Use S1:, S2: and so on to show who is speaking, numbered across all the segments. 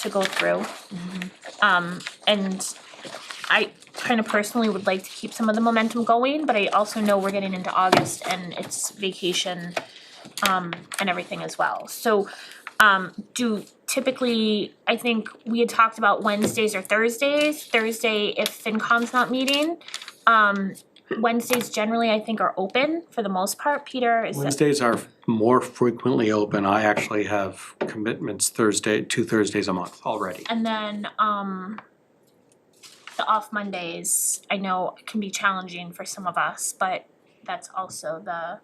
S1: to go through. Um, and I kind of personally would like to keep some of the momentum going, but I also know we're getting into August and it's vacation um and everything as well. So um do typically, I think we had talked about Wednesdays or Thursdays, Thursday if FinCom's not meeting. Um Wednesdays generally I think are open for the most part, Peter is that,
S2: Wednesdays are more frequently open. I actually have commitments Thursday, two Thursdays a month already.
S1: and then um the off Mondays, I know can be challenging for some of us, but that's also the,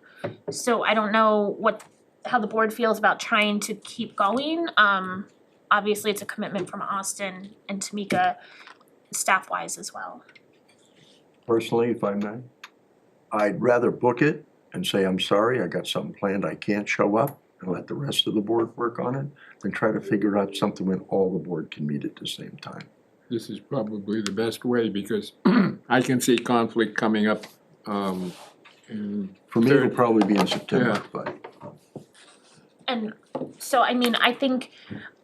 S1: so I don't know what, how the board feels about trying to keep going. Um, obviously, it's a commitment from Austin and Tamika, staff-wise as well.
S3: personally, if I may. I'd rather book it and say, I'm sorry, I got something planned, I can't show up, and let the rest of the board work on it, than try to figure out something when all the board can meet at the same time.
S4: this is probably the best way because I can see conflict coming up. Um, and
S3: For me, it'll
S4: Third.
S3: probably be in September,
S4: Yeah.
S3: but
S1: And so, I mean, I think,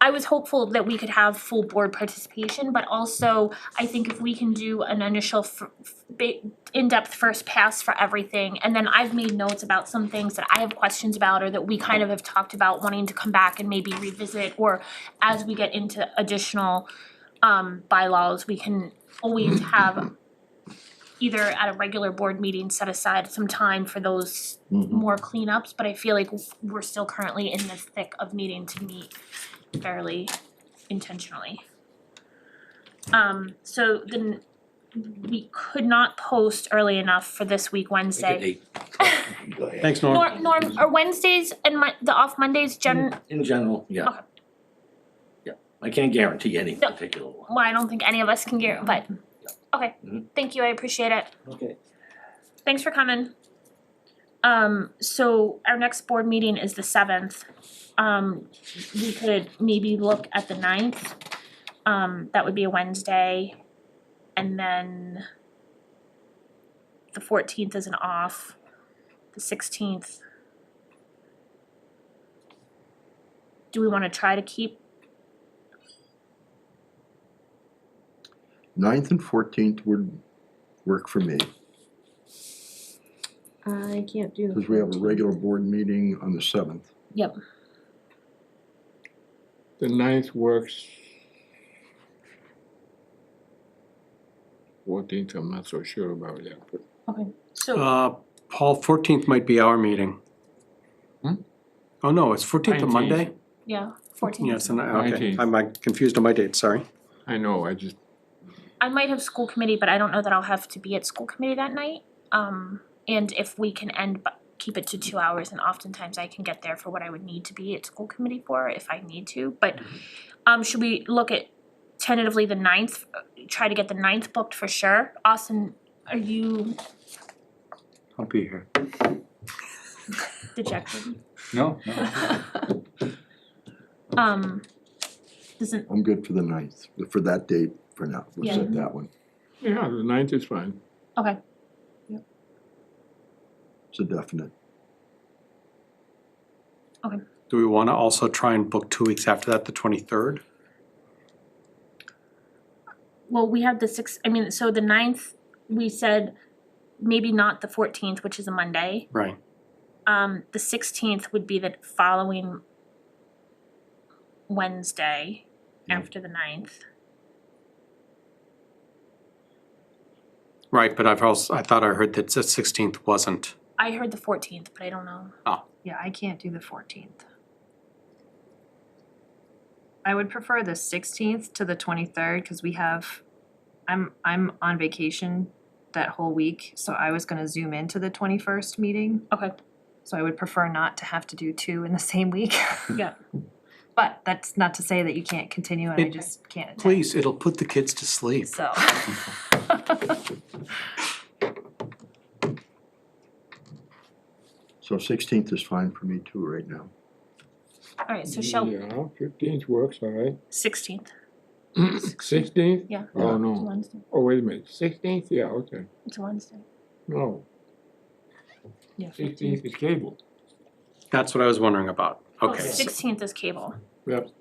S1: I was hopeful that we could have full board participation, but also, I think if we can do an initial f- f- ba- in-depth first pass for everything, and then I've made notes about some things that I have questions about or that we kind of have talked about wanting to come back and maybe revisit, or as we get into additional um bylaws, we can always have either at a regular board meeting, set aside some time for those more cleanups, but I feel like we're still currently in the thick of needing to meet fairly intentionally. Um, so then we could not post early enough for this week, Wednesday.
S5: Go ahead.
S2: Thanks,
S1: Norm,
S2: Norm.
S1: Norm, are Wednesdays and Mon- the off Mondays gen,
S5: In general, yeah.
S1: Okay.
S5: Yeah, I can't guarantee any
S1: No.
S5: particular one.
S1: well, I don't think any of us can get, but, okay,
S5: Mhm.
S1: thank you, I appreciate it.
S5: Okay.
S1: Thanks for coming. Um, so our next board meeting is the seventh. Um, we could maybe look at the ninth. Um, that would be a Wednesday. And then the fourteenth is an off, the sixteenth. Do we wanna try to keep,
S3: ninth and fourteenth would work for me,
S6: I can't do the.
S3: because we have a
S6: 14th.
S3: regular board meeting on the seventh.
S4: the ninth works. Fourteenth, I'm not so sure about yet, but
S1: so
S2: Uh, Paul, fourteenth might be our meeting.
S4: Hmm?
S2: Oh, no, it's fourteenth a Monday?
S1: yeah, fourteenth.
S2: Yes, and, I- okay,
S4: 19th.
S2: I'm uh, confused on my dates, sorry.
S4: I know, I just,
S1: I might have school committee, but I don't know that I'll have to be at school committee that night. Um, and if we can end, but keep it to two hours, and oftentimes I can get there for what I would need to be at school committee for if I need to, but, um, should we look at tentatively the ninth, try to get the ninth booked for sure? Austin, are you
S7: I'll be here.
S1: dejected?
S7: No, no.
S1: Um, doesn't,
S3: I'm good for the ninth, for that date for now, we'll set that one,
S4: yeah, the ninth is fine.
S1: okay,
S3: it's a definite.
S2: Do we wanna also try and book two weeks after that, the twenty-third?
S1: well, we have the six, I mean, so the ninth, we said maybe not the fourteenth, which is a Monday.
S2: Right.
S1: Um, the sixteenth would be the following Wednesday after the ninth.
S2: Right, but I've also, I thought I heard that the sixteenth wasn't.
S1: I heard the fourteenth, but I don't know.
S8: Yeah, I can't do the fourteenth. I would prefer the sixteenth to the twenty-third, cause we have, I'm, I'm on vacation that whole week, so I was gonna zoom into the twenty-first meeting,
S1: Okay,
S8: so I would prefer not to have to do two in the same week.
S1: Yeah.
S8: But that's not to say that you can't continue and I
S2: It-
S8: just can't attend,
S2: Please, it'll put the kids to sleep.
S8: so.
S3: So sixteenth is fine for me too right now.
S1: alright, so shall,
S4: Yeah, fifteenth works, all right.
S1: sixteenth,
S4: Sixteenth?
S1: Yeah.
S4: Oh,
S1: it's a
S4: no,
S1: Wednesday,
S4: oh, wait a minute, sixteenth, yeah, okay,
S1: it's a Wednesday.
S4: no,
S8: Yeah,
S4: sixteenth is cable.
S1: Oh,
S2: That's what I was wondering about, okay.
S1: Sixteenth is cable.
S4: Yep.